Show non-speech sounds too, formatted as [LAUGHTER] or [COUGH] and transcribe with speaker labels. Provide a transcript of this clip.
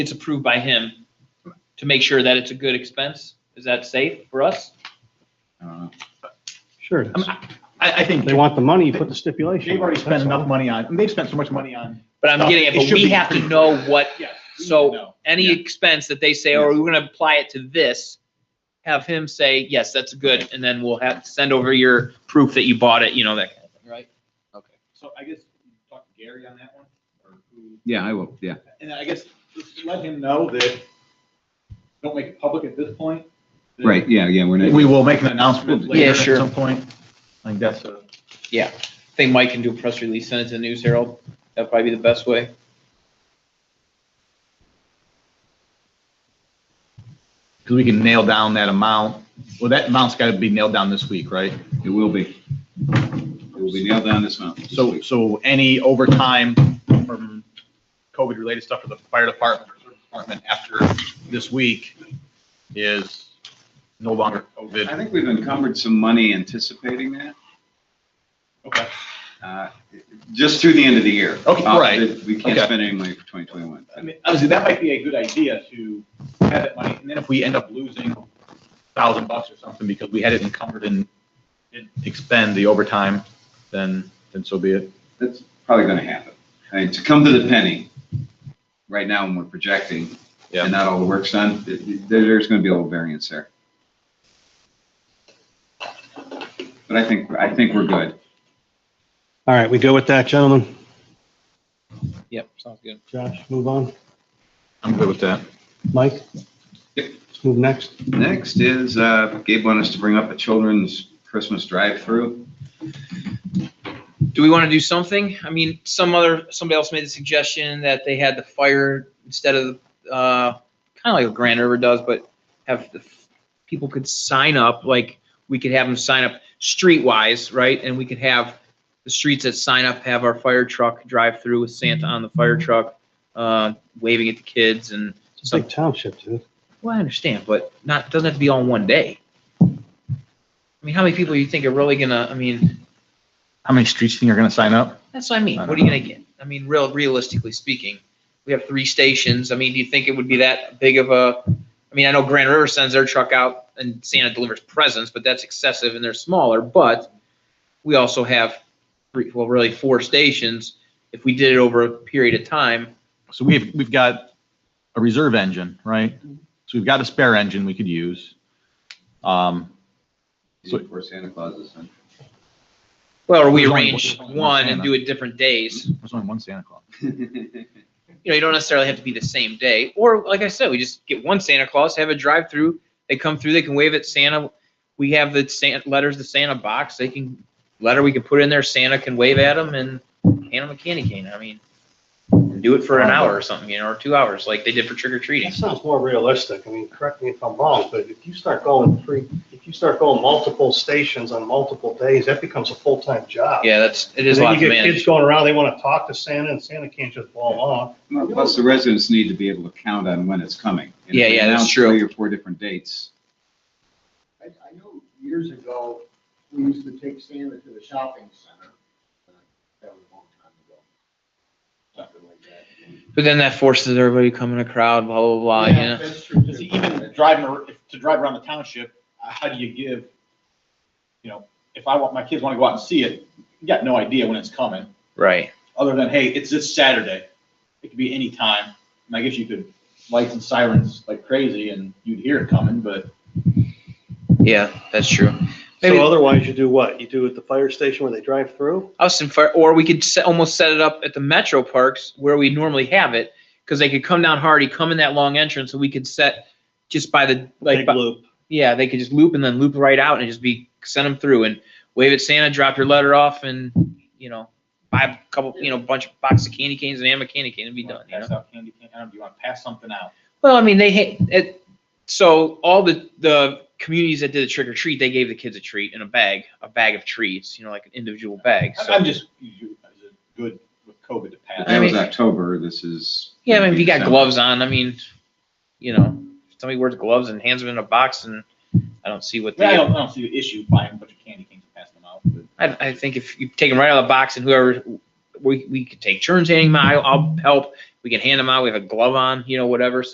Speaker 1: it's approved by him to make sure that it's a good expense? Is that safe for us?
Speaker 2: I
Speaker 3: Uh,
Speaker 2: don't know.
Speaker 4: Sure. it is.
Speaker 2: I, I think
Speaker 4: They want the money, you put the stipulation.
Speaker 2: they've already
Speaker 4: That's
Speaker 2: spent
Speaker 4: all.
Speaker 2: enough money on, and they've spent so much money on.
Speaker 1: But I'm getting it,
Speaker 2: It
Speaker 1: but
Speaker 2: should
Speaker 1: we
Speaker 2: be
Speaker 1: have to
Speaker 2: pretty-
Speaker 1: know what,
Speaker 2: Yes.
Speaker 1: so
Speaker 2: No.
Speaker 1: any
Speaker 2: Yeah.
Speaker 1: expense that they say, oh, we're gonna apply it to this, have him say, yes, that's good, and then we'll have, send over your proof that you bought it, you know, that kind of thing, right?
Speaker 2: So I guess you talk to Gary on that one, or who,
Speaker 3: Yeah, I will, yeah.
Speaker 2: and I guess just let him know that, don't make it public at this point. that
Speaker 3: Right, yeah, yeah, we're not.
Speaker 2: We will make an announcement
Speaker 1: Yeah,
Speaker 2: later at
Speaker 1: sure.
Speaker 2: some point. I think that's a.
Speaker 1: I think Mike can do a press release, send it to the News Herald, that'd probably be the best way.
Speaker 2: Because we can nail down that amount. Well, that amount's got to be nailed down this week, right?
Speaker 3: It will be. It will be nailed down this mountain.
Speaker 2: So, so any overtime from COVID-related stuff for the fire department or service department after this week is no longer
Speaker 3: I
Speaker 2: COVID.
Speaker 3: think we've encumbered some money anticipating that,
Speaker 2: Okay.
Speaker 3: uh, just through the end of the year.
Speaker 2: Okay,
Speaker 3: Uh,
Speaker 2: right.
Speaker 3: that We can't
Speaker 2: Okay.
Speaker 3: spend any money for 2021.
Speaker 2: I mean, obviously, that might be a good idea to have that money, and then if we end up losing thousand bucks or something because we had it encumbered and didn't expend the overtime, then, then so be it.
Speaker 3: That's probably going to happen. I mean, to come to the penny, right now when we're projecting,
Speaker 2: Yeah.
Speaker 3: and not all the work's done, th- th- there's going to be a little variance there. But I think, I think we're good.
Speaker 4: All right, we go with that, gentlemen.
Speaker 1: Yep, sounds good.
Speaker 4: Josh, move on.
Speaker 2: I'm good with that.
Speaker 4: Mike?
Speaker 3: Yep.
Speaker 4: Let's move next.
Speaker 3: Next is, uh, Gabe wanted us to bring up a children's Christmas drive-through.
Speaker 1: Do we want to do something? I mean, some other, somebody else made the suggestion that they had the fire instead of, uh, kind of like what Grand River does, but have the, f- people could sign up, like, we could have them sign up streetwise, right? And we could have the streets that sign up have our fire truck drive through with Santa on the fire truck, uh, waving at the kids and,
Speaker 4: It's a big township, dude.
Speaker 1: well, I understand, but not, doesn't have to be all in one day. I mean, how many people you think are really gonna, I mean,
Speaker 2: How many streets do you think are going to sign up?
Speaker 1: That's what I mean.
Speaker 2: I
Speaker 1: What are
Speaker 2: don't
Speaker 1: you gonna get? I mean, real, realistically speaking, we have three stations. I mean, do you think it would be that big of a, I mean, I know Grand River sends their truck out and Santa delivers presents, but that's excessive and they're smaller, but we also have three, well, really four stations. If we did it over a period of time,
Speaker 2: So we've, we've got a reserve engine, right? So we've got a spare engine we could use. Um, So-
Speaker 3: Before Santa Claus is done.
Speaker 1: well, or we
Speaker 2: There's only-
Speaker 1: arrange
Speaker 2: there's only
Speaker 1: one and
Speaker 2: Santa.
Speaker 1: do it different days.
Speaker 2: there's only one Santa Claus.
Speaker 1: you know, you don't necessarily have to be the same day. Or like I said, we just get one Santa Claus, have a drive through. They come through, they can wave at Santa. We have the Santa letters, the Santa box. They can letter we can put in there. Santa can wave at them and hand them a candy cane. I mean, do it for an hour or something, you know, or two hours, like they did for trick or treating.
Speaker 4: That sounds more realistic. I mean, correct me if I'm wrong, but if you start going three, if you start going multiple stations on multiple days, that becomes a full-time job.
Speaker 1: Yeah, that's it is a
Speaker 4: And
Speaker 1: lot
Speaker 4: then
Speaker 1: to
Speaker 4: you get kids
Speaker 1: manage.
Speaker 4: going around, they want to talk to Santa and Santa can't just blow them off.
Speaker 3: [LAUGHS] Well, Plus, the residents need to be able to count on when it's coming. And if
Speaker 1: Yeah,
Speaker 3: we
Speaker 1: yeah, that's
Speaker 3: announce
Speaker 1: true.
Speaker 3: Three or four different dates.
Speaker 5: I, I know years ago, we used to take Santa to the shopping center. but That was a long time ago. Something like that.
Speaker 1: But then that forces everybody to come in a crowd, blah blah blah. Yeah.
Speaker 5: That's true.
Speaker 2: Because even driving, ar- if- to drive around the township, uh, how do you give, you know, if I want, my kids want to go out and see it, you got no idea when it's coming,
Speaker 1: Right.
Speaker 2: other than, hey, it's this Saturday. It could be any time. And I guess you could lights and sirens like crazy and you'd hear it coming, but
Speaker 1: Yeah, that's true. Maybe-
Speaker 4: So otherwise you do what? You do at the fire station where they drive through?
Speaker 1: us and fire, or we could set, almost set it up at the metro parks where we normally have it, because they could come down Hardy, come in that long entrance, and we could set just by the like,
Speaker 4: Big
Speaker 1: by-
Speaker 4: loop.
Speaker 1: yeah, they could just loop and then loop right out and just be send them through and wave at Santa, drop your letter off, and you know, buy a couple, you know, bunch of box of candy canes and ham a candy cane and be
Speaker 6: You wanna
Speaker 1: done. You know?
Speaker 6: Pass out candy cane, I don't know, do you wanna pass something out?
Speaker 1: Well, I mean, they ha- it, so all the the communities that did the trick or treat, they gave the kids a treat in a bag, a bag of treats, you know, like an individual bag.
Speaker 6: I'm-
Speaker 1: So.
Speaker 6: I'm just, you, is it good with COVID to
Speaker 3: But
Speaker 6: pass?
Speaker 1: I
Speaker 3: That was
Speaker 1: mean-
Speaker 3: October, this is.
Speaker 1: Yeah, I mean, if you got
Speaker 3: December.
Speaker 1: gloves on, I mean, you know, if somebody wears gloves and hands them in a box, and I don't see what
Speaker 6: Yeah, I
Speaker 1: they.
Speaker 6: don't, I don't see the issue buying a bunch of candy canes and passing them out, but
Speaker 1: I, I think if you take them right out of the box, and whoever we we could take turns handing them, out, I'll help. we can hand them out, we have a glove on, you know, whatever, so